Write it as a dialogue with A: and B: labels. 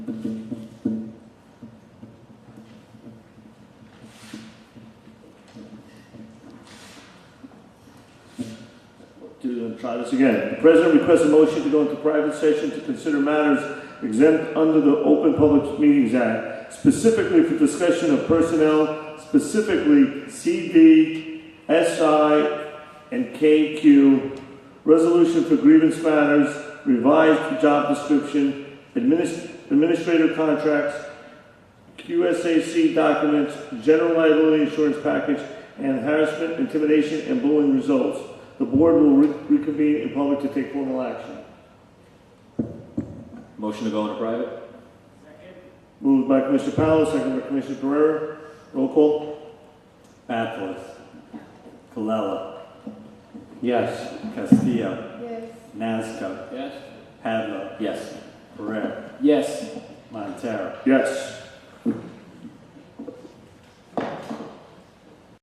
A: gonna try this again. The president requests a motion to go into private session to consider matters exempt under the Open Public Meetings Act, specifically for discussion of personnel, specifically CD, SI, and KQ, resolution for grievance matters, revised job description, adminis- administrative contracts, QSAC documents, general liability insurance package, and harassment, intimidation, and bullying results. The board will re- reconvene in public to take formal action.
B: Motion to go into private?
A: Moved by Commissioner Powell, second by Commissioner Pereira. Roll call.
C: Bathos. Colella. Yes. Castillo.
D: Yes.
C: Nazca.
B: Yes.
C: Padla.
B: Yes.
C: Pereira.
B: Yes.
C: Montero.
A: Yes.